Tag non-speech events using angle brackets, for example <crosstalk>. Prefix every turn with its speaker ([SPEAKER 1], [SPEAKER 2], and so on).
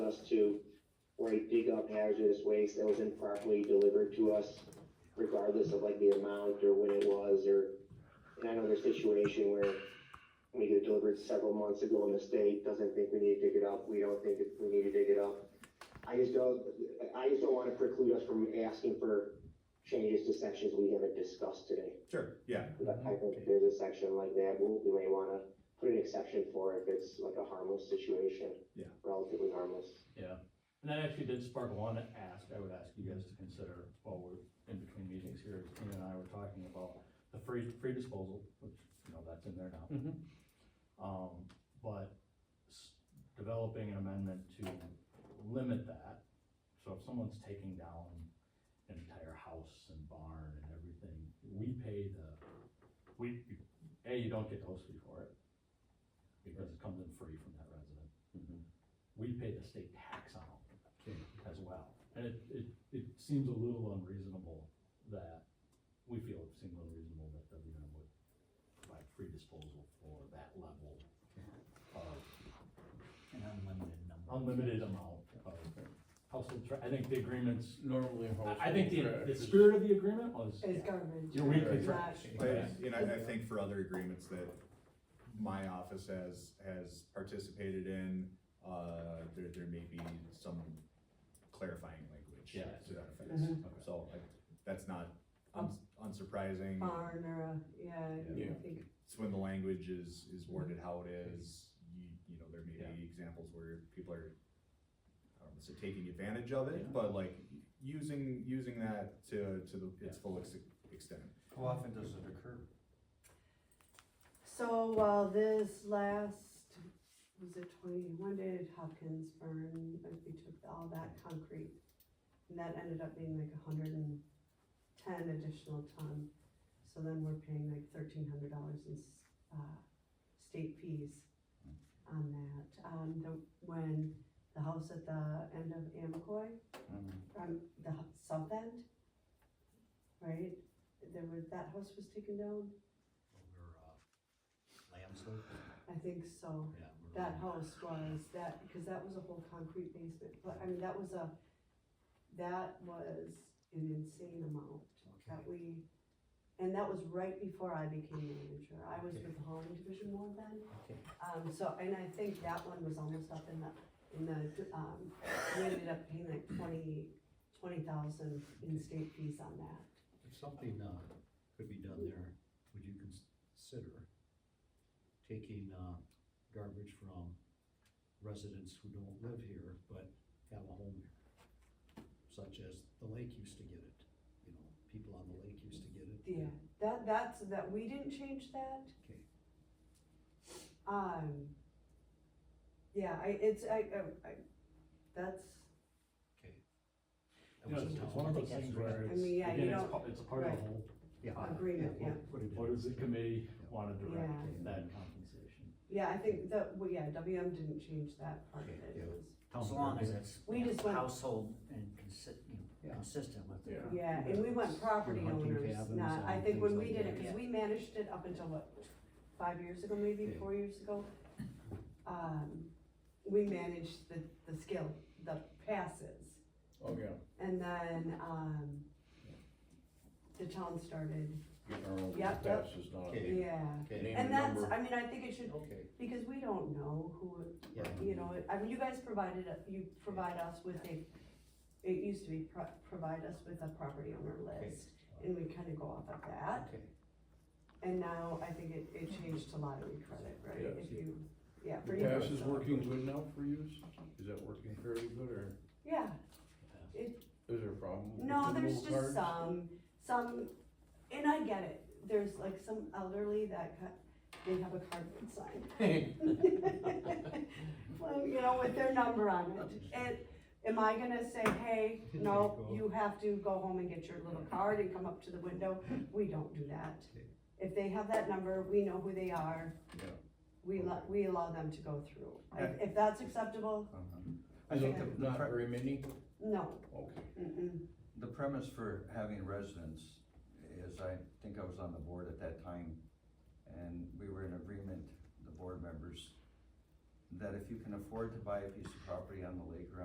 [SPEAKER 1] we dump hazardous waste that was improperly delivered to us, regardless of like the amount or when it was, or, and I know there's a situation where we get delivered several months ago and the state doesn't think we need to dig it up, we don't think it- we need to dig it up. I just don't, I just don't wanna preclude us from asking for changes to sections we haven't discussed today.
[SPEAKER 2] Sure, yeah,
[SPEAKER 1] But I think if there's a section like that, we, we may wanna put an exception for if it's like a harmless situation.
[SPEAKER 2] Yeah.
[SPEAKER 1] Relatively harmless.
[SPEAKER 3] Yeah, and that actually did spark one ask, I would ask you guys to consider while we're in between meetings here, Tina and I were talking about the free, free disposal, which, you know, that's in there now. Um, but s- developing an amendment to limit that, so if someone's taking down an entire house and barn and everything, we pay the, we, A, you don't get the host fee for it, because it comes in free from that resident we pay the state tax on them as well. And it, it, it seems a little unreasonable that, we feel it seems unreasonable that W M would provide free disposal for that level of
[SPEAKER 4] An unlimited number.
[SPEAKER 3] unlimited amount of household trash. I think the agreements,
[SPEAKER 5] Normally.
[SPEAKER 3] I, I think the,
[SPEAKER 5] household
[SPEAKER 3] the
[SPEAKER 5] trash is-
[SPEAKER 3] spirit of the agreement was
[SPEAKER 6] It's garbage.
[SPEAKER 3] your weekly
[SPEAKER 5] Right.
[SPEAKER 3] trash.
[SPEAKER 2] but, you know, I think for other agreements that my office has, has participated in, uh, there, there may be some clarifying language.
[SPEAKER 3] Yeah.
[SPEAKER 2] To that effect,
[SPEAKER 6] Mhm.
[SPEAKER 3] Okay.
[SPEAKER 2] so, like, that's not uns- unsurprising,
[SPEAKER 6] Barn or a, yeah,
[SPEAKER 5] Yeah.
[SPEAKER 6] I think,
[SPEAKER 2] it's when the language is, is worded how it is, you, you know, there
[SPEAKER 3] Yeah.
[SPEAKER 2] may be examples where people are, I don't wanna say taking advantage of
[SPEAKER 3] Yeah.
[SPEAKER 2] it, but like, using, using that to, to the, its full ex- extent.
[SPEAKER 4] How often does it occur?
[SPEAKER 6] so, well, this last, was it twenty, when did Hopkins burn, like, we took all that concrete? And that ended up being like a hundred and ten additional ton, so then we're paying like thirteen hundred dollars in, s- uh, state fees on that. Um, the, when the house at the end of Amacoy, from the h- south end, right? There was, that house was taken down?
[SPEAKER 4] Over, uh, Lamb's Hook?
[SPEAKER 6] I think so.
[SPEAKER 4] Yeah, we're-
[SPEAKER 6] That house was, that, because that was a whole concrete basement, but I mean, that was a, that was an insane amount that
[SPEAKER 4] Okay.
[SPEAKER 6] we, and that was right before I became manager. I was with the Holland Division One then.
[SPEAKER 4] Okay.
[SPEAKER 6] Um, so, and I think that one was almost up in the, in the, um, we ended up paying like twenty, twenty thousand in state fees on that.
[SPEAKER 4] If something, uh, could be done there, would you consider taking, uh, garbage from residents who don't live here but have a home here? Such as the lake used to get it, you know, people on the lake used to get it.
[SPEAKER 6] Yeah, that, that's, that, we didn't change that.
[SPEAKER 4] Okay.
[SPEAKER 6] Um, yeah, I, it's, I, I, I, that's,
[SPEAKER 4] Okay.
[SPEAKER 3] You
[SPEAKER 4] That
[SPEAKER 3] know,
[SPEAKER 4] was a
[SPEAKER 3] it's, it's
[SPEAKER 4] town.
[SPEAKER 3] one of those things where
[SPEAKER 6] I
[SPEAKER 3] it's,
[SPEAKER 6] mean, yeah, you
[SPEAKER 3] again, it's,
[SPEAKER 6] don't-
[SPEAKER 3] pa- it's a part of the
[SPEAKER 6] right.
[SPEAKER 3] whole,
[SPEAKER 4] Yeah.
[SPEAKER 6] Agreement, yeah.
[SPEAKER 4] we'll put it in.
[SPEAKER 3] what does the committee wanna direct
[SPEAKER 6] Yeah.
[SPEAKER 3] that compensation?
[SPEAKER 6] yeah, I think that, well, yeah, WM didn't change that part of
[SPEAKER 4] Okay,
[SPEAKER 6] it.
[SPEAKER 4] yeah.
[SPEAKER 6] It was-
[SPEAKER 4] Town
[SPEAKER 7] As long as
[SPEAKER 4] board.
[SPEAKER 7] it's
[SPEAKER 6] We just went-
[SPEAKER 7] household and consi- you know,
[SPEAKER 4] Yeah.
[SPEAKER 7] consistent with the.
[SPEAKER 5] Yeah.
[SPEAKER 6] Yeah, and we went property
[SPEAKER 4] uh, Hunting
[SPEAKER 6] owners,
[SPEAKER 4] cabins
[SPEAKER 6] not, I
[SPEAKER 4] and
[SPEAKER 6] think when
[SPEAKER 4] things
[SPEAKER 6] we
[SPEAKER 4] like
[SPEAKER 6] did it,
[SPEAKER 4] that.
[SPEAKER 6] cause we managed it up until what, five years ago, maybe,
[SPEAKER 4] Yeah.
[SPEAKER 6] four years ago? Um, we managed the, the skill, the passes.
[SPEAKER 5] Oh, yeah.
[SPEAKER 6] And then, um, the town started,
[SPEAKER 5] Getting our own
[SPEAKER 6] Yep, yep.
[SPEAKER 5] passes done.
[SPEAKER 4] Okay.
[SPEAKER 6] yeah.
[SPEAKER 4] Okay,
[SPEAKER 5] Name
[SPEAKER 6] And
[SPEAKER 5] and
[SPEAKER 6] that's,
[SPEAKER 5] number.
[SPEAKER 6] I mean, I think it should,
[SPEAKER 4] okay,
[SPEAKER 6] because we don't know who,
[SPEAKER 4] yeah,
[SPEAKER 6] you know, I mean, you guys provided, you provide us with a, it used to be, pro- provide us with a property owner list, and we kind of go off of that.
[SPEAKER 7] <laughs>
[SPEAKER 4] okay.
[SPEAKER 6] And now I think it, it changed to lottery credit, right?
[SPEAKER 5] Yes.
[SPEAKER 6] If you, yeah. for
[SPEAKER 5] The
[SPEAKER 6] you,
[SPEAKER 5] pass is
[SPEAKER 6] so-
[SPEAKER 5] working good now for you? Is that working fairly good or
[SPEAKER 6] Yeah,
[SPEAKER 5] is there a problem? with
[SPEAKER 6] no,
[SPEAKER 5] the
[SPEAKER 6] there's
[SPEAKER 5] mobile
[SPEAKER 6] just
[SPEAKER 5] cards?
[SPEAKER 6] some, some, and I get it, there's like some elderly that, ca- they have a cardboard sign. <laughs> Well, you know, with their number on it, and am I gonna say, hey,
[SPEAKER 5] <laughs>
[SPEAKER 6] no, you have to go home and get your little card and come up to the window? We don't do that. If they have that number, we know who they are,
[SPEAKER 5] Yeah.
[SPEAKER 6] we allow, we allow them to go through. If, if that's acceptable,
[SPEAKER 5] I think
[SPEAKER 6] Okay.
[SPEAKER 5] there's not very many,
[SPEAKER 6] no,
[SPEAKER 5] okay.
[SPEAKER 6] mm-mm.
[SPEAKER 8] The premise for having residents is, I think I was on the board at that time, and we were in agreement, the board members, that if you can afford to buy a piece of property on the lake or